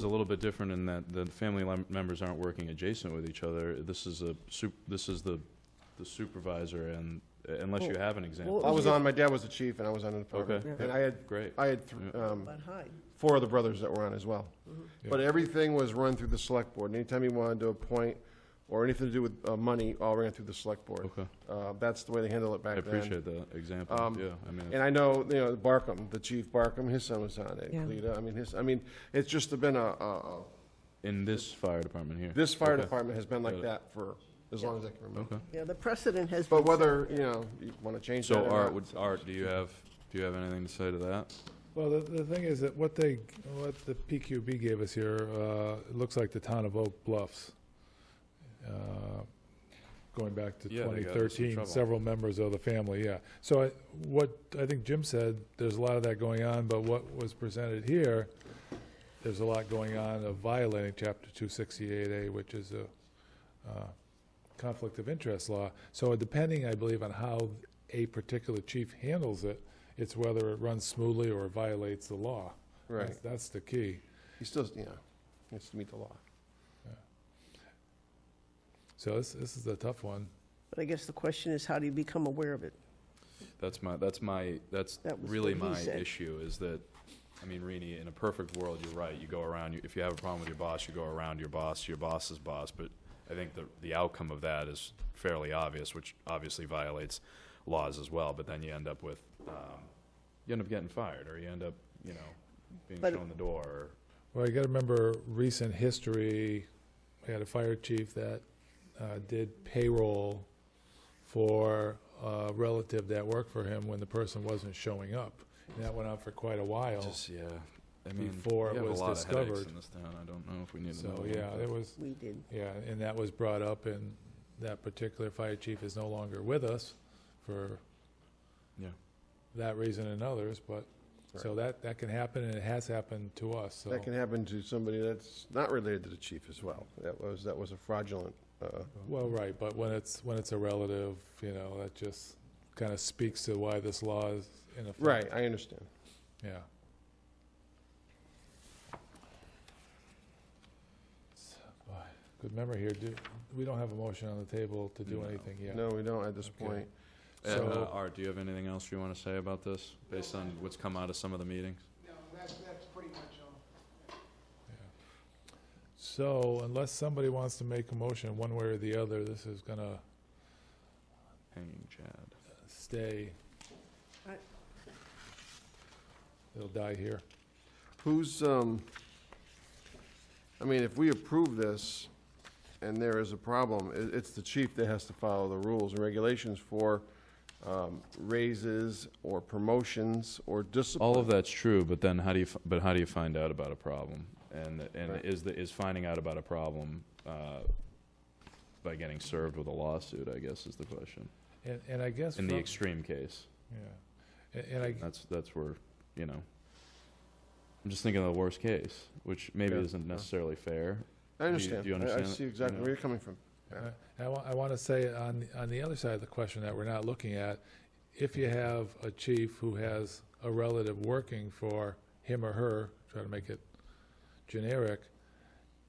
is a little bit different in that the family lem- members aren't working adjacent with each other. This is a, sup- this is the the supervisor and, unless you Well, have an example. well- I was on, my dad was the chief and I was on the department. Okay. And I had, Great. I had, th- Yeah. um, But hi. four of the brothers that were on as well. Yeah. But everything was run through the select board. Anytime you wanted to appoint or anything to do with uh, money, all ran through the select board. Okay, Uh, That's the way they handle it Oh. I back then. appreciate that example, Um, yeah, I mean, And I know, you know, Barkum, the chief Barkum, his son was on it, Yeah. Lita, I mean, his, I mean, it's just been a, a- a- in this fire department here. this fire Okay. department has been Got like it. that for as long as I can remember. Okay, Yeah, the precedent has been. But whether, you know, you want to change that so or Art, not, would- Art, do you have, do you have anything to say to that? Well, the, the thing is that what they, what the PQB gave us here, uh, it looks like the town of Oak Bluffs. Uh, Going back to Yeah, they got us in 2013, trouble. several members of the family, yeah. So I, what, I think Jim said, there's a lot of that going on, but what was presented here, there's a lot going on of violating chapter 268A, which is a, uh, conflict of interest law. So depending, I believe, on how a particular chief handles it, it's whether it runs smoothly or violates the law. Right, That's- That's the key. he still, you know, needs to meet the law. So this, this is a tough one. But I guess the question is, how do you become aware of it? That's my, that's my, that's That was really what he my said. issue, is that, I mean, Rini, in a perfect world, you're right, you go around, you- if you have a problem with your boss, you go around your boss, your boss's boss, but I think the, the outcome of that is fairly obvious, which obviously violates laws as well, but then you end up with, um, you end up getting fired, or you end up, you know, being But- shown the door, or Well, you gotta remember recent history, we had a fire chief that, uh, did payroll for a relative that worked for him when the person wasn't showing up. And that went on for quite a while. Just, yeah, I mean, Before we it have a was lot of headaches discovered. in this town. I don't know if we need another So, one. yeah, but- it was, We did. Yeah, and that was brought up, and that particular fire chief is no longer with us for Yeah. that reason and others, but, so that, that can happen, and it has happened to us, so. That can happen to somebody that's not related to the chief as well. That was, that was a fraudulent, uh, Well, right, but when it's, when it's a relative, you know, that just kind of speaks to why this law is in effect. right, I understand. Yeah. Boy, Good memory here. Do, we don't have a motion on the table to do No. anything yet. No, we don't at this Okay. point. Uh, So- uh, Art, do you have anything else you want to say about this, based on what's come out of some of the meetings? So unless somebody wants to make a motion one way or the other, this is gonna Hanging Chad. stay. I- It'll die here. Who's, um, I mean, if we approve this and there is a problem, i it's the chief that has to follow the rules and regulations for, um, raises or promotions or discipline. All of that's true, but then how do you, f- but how do you find out about a problem? And, and Right. is, the- is finding out about a problem uh, by getting served with a lawsuit, I guess, is the question, And, and I guess. in the from- extreme case. Yeah. A- And I, That's, that's where, you know, I'm just thinking of the worst case, which maybe Yeah. isn't necessarily fair. I understand. do you I- understand I that? see exactly Yeah. where you're coming from. I- I want, I want to say on, on the other side of the question that we're not looking at, if you have a chief who has a relative working for him or her, try to make it generic,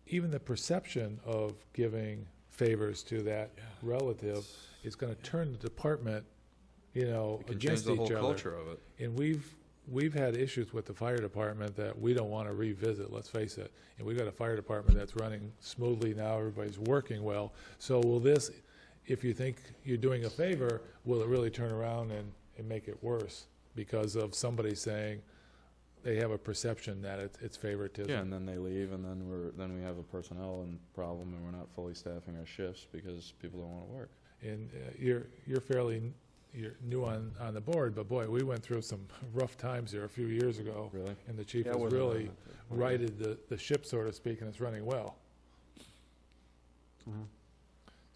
even the perception of giving favors to that relative is going to turn the department, you know, It can change against the each whole other. culture of it. And we've, we've had issues with the fire department that we don't want to revisit, let's face it. And we've got a fire department that's running smoothly now, everybody's working well. So will this, if you think you're doing a favor, will it really turn around and, and make it worse? Because of somebody saying they have a perception that it's- it's Yeah, favoritism. and then they leave, and then we're, then we have a personnel and problem, and we're not fully staffing our shifts because people don't want to work. And uh, you're, you're fairly, n- you're new on, on the board, but boy, we went through some rough times here a few years ago. Really? And the chief Yeah, I was wasn't on really it, but- righted the, the ship, so to speak, and it's running well. Mhm.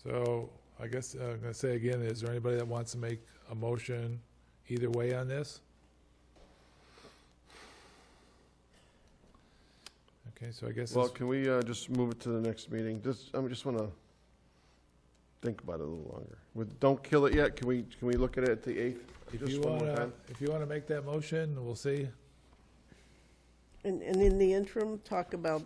So I guess uh, I'm going to say again, is there anybody that wants to make a motion either way on this? Okay, so I guess Well, it's can we uh, just move it to the next meeting? Just, I just want to think about it a little longer. With- Don't kill it yet. Can we, can we look at it at the 8th? if just you one more want to, time. if you want to make that motion, we'll see. And, and in the interim, talk about,